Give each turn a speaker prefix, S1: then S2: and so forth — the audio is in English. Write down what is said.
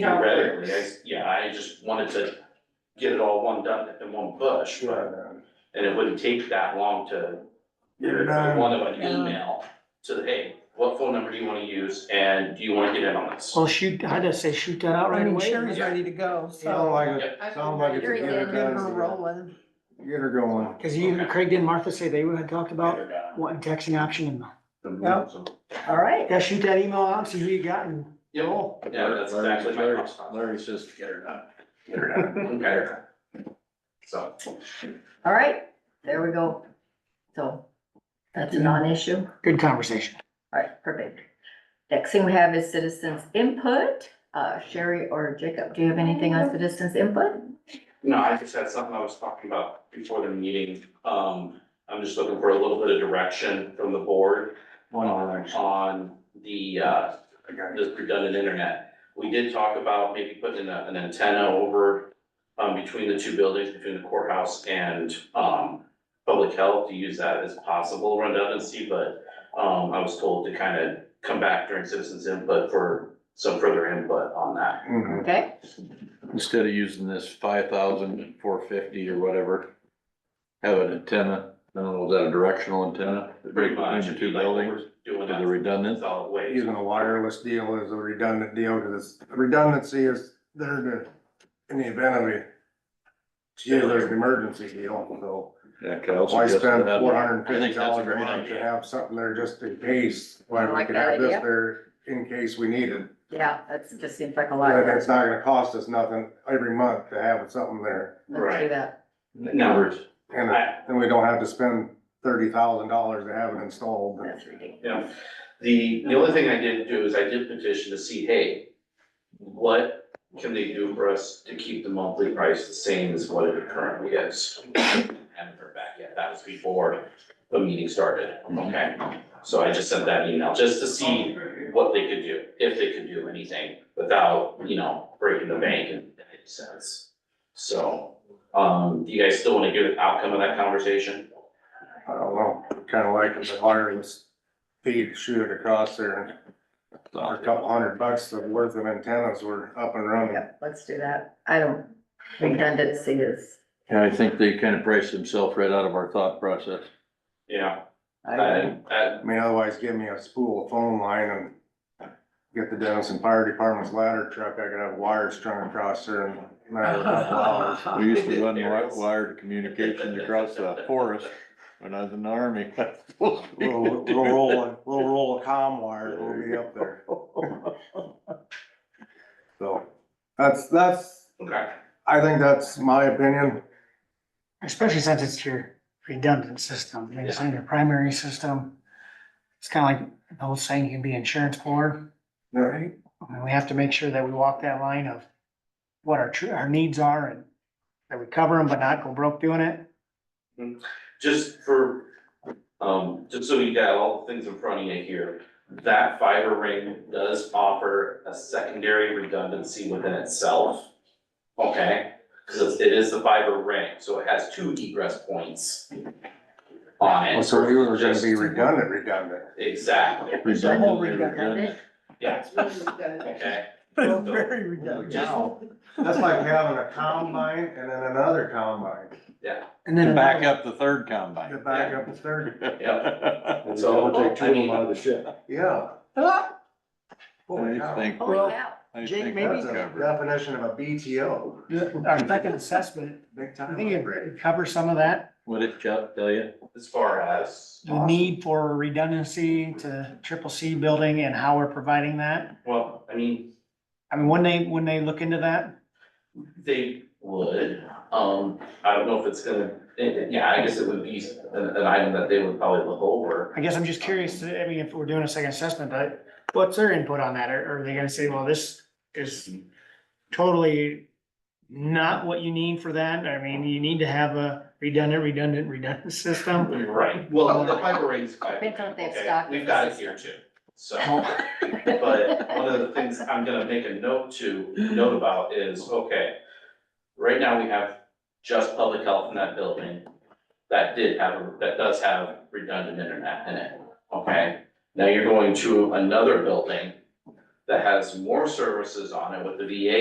S1: Yeah.
S2: Theoretically, I, yeah, I just wanted to get it all one done in one push, but, and it wouldn't take that long to
S3: Get it
S2: I
S3: done.
S2: wanted an email to, the, hey, what phone number do you wanna use, and do you wanna get in on this?
S4: Well, shoot, I'd just say shoot that out
S1: I
S4: right
S1: mean,
S4: away.
S1: Sherry's ready to go,
S3: Sound
S1: so.
S3: like, it- sound like it's a
S1: Get
S3: get it
S1: her
S3: done.
S1: rolling.
S3: Get her going.
S4: Cause you, Craig didn't Martha say they had talked about
S2: Yeah.
S4: wanting texting option and
S1: All right.
S4: yeah, shoot that email out, see who you got and
S2: Yeah, yeah, that's
S3: Larry-
S2: exactly my
S3: Larry-
S2: thoughts.
S3: Larry's just get her done.
S2: Get her done. Okay. So,
S1: All right, there we go. So that's a non-issue.
S4: good conversation.
S1: All right, perfect. Next thing we have is citizens input. Uh, Sherry or Jacob, do you have anything on citizens input?
S2: no, I just had something I was talking about before the meeting, um, I'm just looking for a little bit of direction from the board
S3: One on action.
S2: on the, uh,
S3: I got it.
S2: this redundant internet. We did talk about maybe putting a- an antenna over, um, between the two buildings, between the courthouse and, um, public health to use that as possible redundancy, but, um, I was told to kind of come back during citizens input for some further input on that.
S3: Mhm.
S1: Okay,
S5: Instead of using this five thousand four fifty or whatever, have an antenna, I don't know, is that a directional antenna?
S2: Pretty much,
S5: Between the
S2: it'd be
S5: two
S2: like what
S5: buildings,
S2: we're doing
S5: is it
S2: that
S5: redundant?
S2: solid waste.
S3: Using a wireless deal is a redundant deal, because redundancy is there to, in the event of a, gee, there's an emergency deal, so.
S5: Yeah, could I also
S3: Why
S5: just
S3: spend
S5: add-
S3: four hundred and
S5: I
S3: fifty
S5: think that's a
S3: dollars a
S5: great
S3: month to
S5: idea.
S3: have something there just in case,
S1: I
S3: why we
S1: like
S3: could
S1: that
S3: have this
S1: idea.
S3: there in case we need it.
S1: yeah, that's, just seems like a lot.
S3: And
S1: Let's
S3: it's not gonna cost us nothing every month to have something there,
S1: do that.
S2: Numbers.
S3: and then we don't have to spend thirty thousand dollars to have it installed.
S1: That's ridiculous.
S2: Yeah, the, the only thing I did do is I did petition to see, hey, what can they do for us to keep the monthly price the same as what it currently is? Haven't heard back yet, that was before the meeting started, okay? So I just sent that email, just to see what they could do, if they could do anything without, you know, breaking the bank in any sense. So, um, do you guys still wanna give an outcome of that conversation?
S3: I don't know, kinda like the wireless feed shoot it across there, and a couple hundred bucks of worth of antennas were up and running.
S1: Yeah, let's do that. I don't, redundancy is.
S5: Yeah, I think they kind of priced themselves right out of our thought process.
S2: Yeah,
S1: I don't-
S2: I, I,
S3: I mean, otherwise give me a spool of phone line and get the Dennison Fire Department's ladder truck, I could have wires strung across there in a matter of a couple hours.
S5: We used to run wi- wired communications across the forest when I was in the army.
S3: Little, little roll, of- little roll of comm wire will be up there. So, that's, that's,
S2: okay.
S3: I think that's my opinion.
S4: Especially since it's your redundant system,
S2: Yeah.
S4: it's in your primary system. It's kinda like the old saying, you can be insurance poor,
S3: Yeah.
S4: right? And we have to make sure that we walk that line of what our true, our needs are and that we cover them, but not go broke doing it.
S2: just for, um, just so you got all the things in front of you here, that fiber ring does offer a secondary redundancy within itself. Okay, because it is the fiber ring, so it has two egress points on
S3: Well,
S2: it.
S3: Oh, so we were gonna be
S2: Just-
S3: redundant, redundant.
S2: Exactly,
S5: Redundant,
S1: Redundant.
S2: yeah, okay.
S4: Very redundant.
S2: Just,
S3: That's like having a combine and then another combine
S2: yeah,
S4: And
S5: To
S4: then
S5: back
S4: another-
S5: up the third combine.
S3: to back up the third.
S5: Yep.
S2: so, I mean,
S3: the ship. Yeah. Holy
S5: I
S3: cow.
S5: think,
S1: Holy cow.
S5: I
S4: Jake,
S5: think
S4: maybe-
S5: that's
S3: That's a
S5: covered.
S3: definition of a BTO.
S4: Our second assessment,
S3: Big
S4: I
S3: time.
S4: think
S3: upgrade.
S4: it covers some of that,
S5: What did Chuck tell you?
S2: as far as,
S4: the need for redundancy to triple C building and how we're providing that.
S2: well, I mean,
S4: I mean, when they, when they look into that,
S2: They would, um, I don't know if it's gonna, it- it- yeah, I guess it would be an, an item that they would probably look over.
S4: I guess I'm just curious, I mean, if we're doing a second assessment, but what's their input on that? Are, are they gonna say, well, this is totally not what you need for that? I mean, you need to have a redundant, redundant, redundant system.
S2: Right, well, the fiber rings.
S1: Depends on if they have
S2: okay,
S1: stock in
S2: We've
S1: the
S2: got it
S1: system.
S2: here too, so, but one of the things I'm gonna make a note to, note about is, okay. Right now, we have just public health in that building, that did have, a- that does have redundant internet in it, okay? Now you're going to another building that has more services on it with the VA